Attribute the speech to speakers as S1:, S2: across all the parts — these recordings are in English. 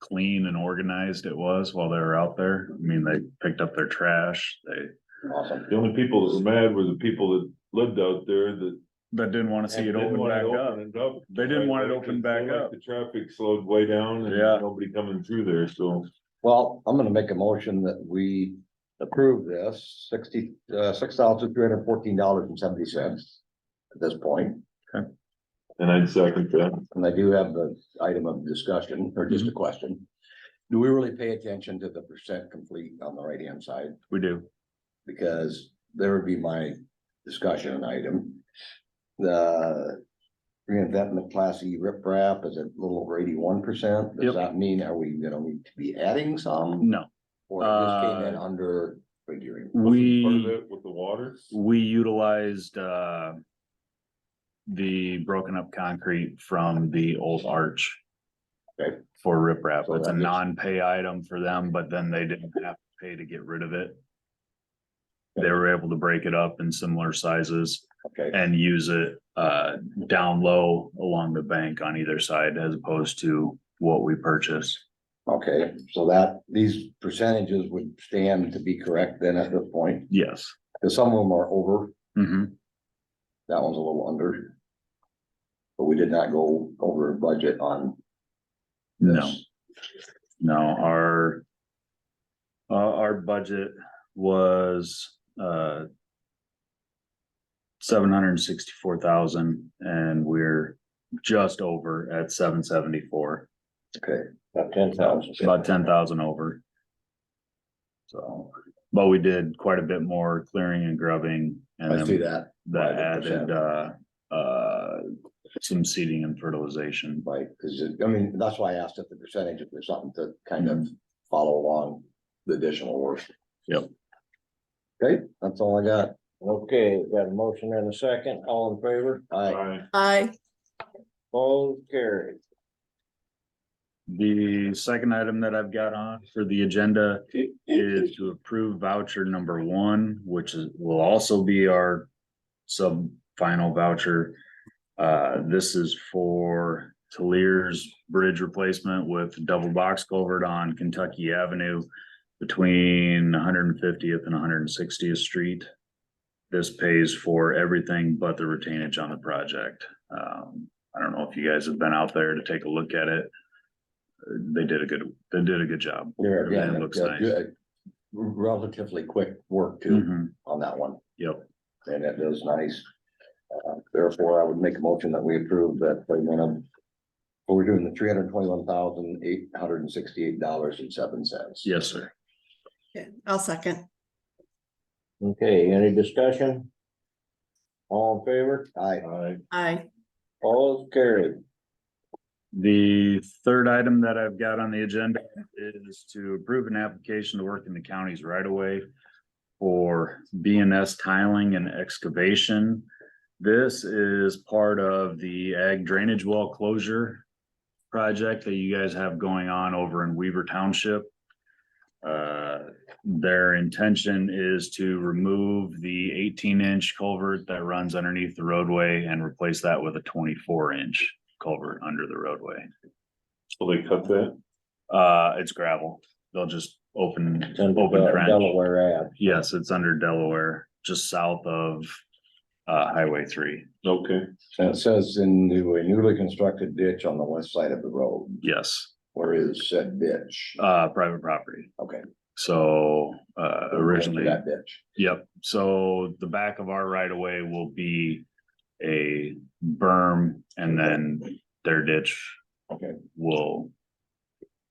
S1: clean and organized it was while they were out there. I mean, they picked up their trash, they,
S2: Awesome.
S3: The only people that were mad were the people that lived out there that.
S1: that didn't wanna see it
S3: didn't
S1: open
S3: want
S1: back up.
S3: opened up.
S1: They didn't want it
S3: Like,
S1: opened
S3: they
S1: back
S3: like
S1: up.
S3: The traffic slowed way down and
S1: Yeah.
S3: nobody coming through there, so.
S2: Well, I'm gonna make a motion that we approve this sixty, uh, six thousand three hundred fourteen dollars and seventy cents. At this point,
S3: And I'd second that.
S2: and I do have the item of discussion or
S3: Mm-hmm.
S2: just a question. Do we really pay attention to the percent complete on the right hand side?
S1: We do.
S2: because there would be my discussion item. The reinvestment class E riprap is a little over eighty-one percent.
S1: Yep.
S2: Does that mean, are we gonna need to be adding some?
S1: No,
S2: Or it just came
S1: Uh,
S2: in under figuring?
S1: we.
S3: Part of it With the water.
S1: We utilized, uh. The broken up concrete from the old arch.
S2: Okay.
S1: For riprap,
S2: So
S1: it's a
S2: that makes-
S1: non-pay item for them, but then they didn't have to pay to get rid of it. They were able to break it up in similar sizes
S2: Okay,
S1: and use it, uh, down low along the bank on either side as opposed to what we purchased.
S2: okay, so that, these percentages would stand to be correct then at this point,
S1: Yes.
S2: because some of them are over,
S1: hmm
S2: that one's a little under. But we did not go over budget on
S1: no.
S2: this.
S1: No, our. Uh, our budget was, uh. Seven hundred and sixty-four thousand and we're just over at seven seventy-four,
S2: Okay, about ten thousand.
S1: about ten thousand over. So, but we did quite a bit more clearing and grubbing and
S2: I see
S1: then that
S2: that, 5%.
S1: added, uh, uh. Some seeding and fertilization,
S2: right, cause it- I mean, that's why I asked if the percentage, if there's something to kind of follow along the additional work.
S1: Yep.
S2: Okay, that's all I got.
S4: Okay, we've got a motion and a second, all in favor,
S2: I,
S3: Aye.
S5: Aye.
S4: all carried.
S1: The second item that I've got on for the agenda is to approve voucher number one, which is, will also be our sub final voucher. Uh, this is for Talers Bridge replacement with double box culvert on Kentucky Avenue between one hundred and fiftieth and one hundred and sixtieth street. This pays for everything but the retainage on the project. Um, I don't know if you guys have been out there to take a look at it Uh, they did a good, they did a good job.
S2: there
S1: Everything
S2: again,
S1: looks
S2: uh,
S1: nice.
S2: good- relatively quick work too
S1: Mhm,
S2: on that one,
S1: Yep,
S2: and it was nice. Uh, Therefore, I would make a motion that we approve that payment of, well, we're doing the three hundred twenty-one thousand, eight hundred and sixty-eight dollars and seven cents.
S1: yes, sir.
S5: Okay, I'll second.
S4: Okay, any discussion? All in favor,
S2: I,
S3: Aye.
S5: Aye.
S4: all carried.
S1: The third item that I've got on the agenda is to approve an application to work in the counties right away for BNS tiling and excavation. This is part of the ag drainage well closure project that you guys have going on over in Weaver Township. Uh, their intention is to remove the eighteen inch culvert that runs underneath the roadway and replace that with a twenty-four inch culvert under the roadway.
S3: So they cut that.
S1: Uh, it's gravel. They'll just open,
S4: It's under
S1: open
S4: Del-
S1: trench.
S4: Delaware Ave.
S1: Yes, it's under Delaware, just south of uh Highway three.
S3: Okay.
S2: it says in the newly constructed ditch on the west side of the road.
S1: Yes,
S2: Where is said ditch?
S1: uh, private property.
S2: Okay.
S1: So uh originally,
S2: That ditch.
S1: yep. So the back of our right of way will be a berm and then their ditch
S2: Okay.
S1: will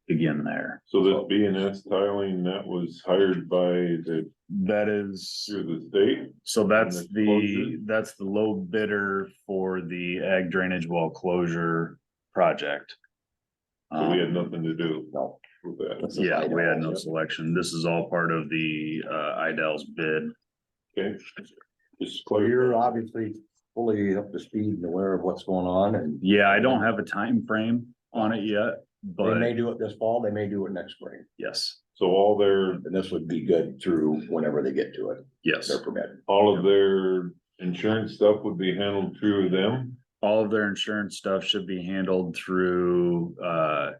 S1: begin there.
S3: So this B and S tiling, that was hired by the,
S1: That is
S3: through the state?
S1: So that's
S3: the
S1: the,
S3: closure?
S1: that's the low bidder for the ag drainage well closure project.
S3: So we had
S1: Um,
S3: nothing to do
S2: No.
S3: with that.
S2: this is
S1: Yeah, we had no
S2: Idaho.
S1: selection. This is all part of the, uh, Idell's bid.
S3: Okay. Just
S2: So
S3: clear.
S2: you're obviously fully up to speed and aware of what's going on and
S1: Yeah, I don't have a time frame on it yet,
S2: they may
S1: but
S2: do it this fall, they may do it next spring.
S1: yes,
S3: So all their,
S2: And this would be good through whenever they get to it,
S1: yes.
S2: their permit.
S3: all of their insurance stuff would be handled through them?
S1: All of their insurance stuff should be handled through, uh,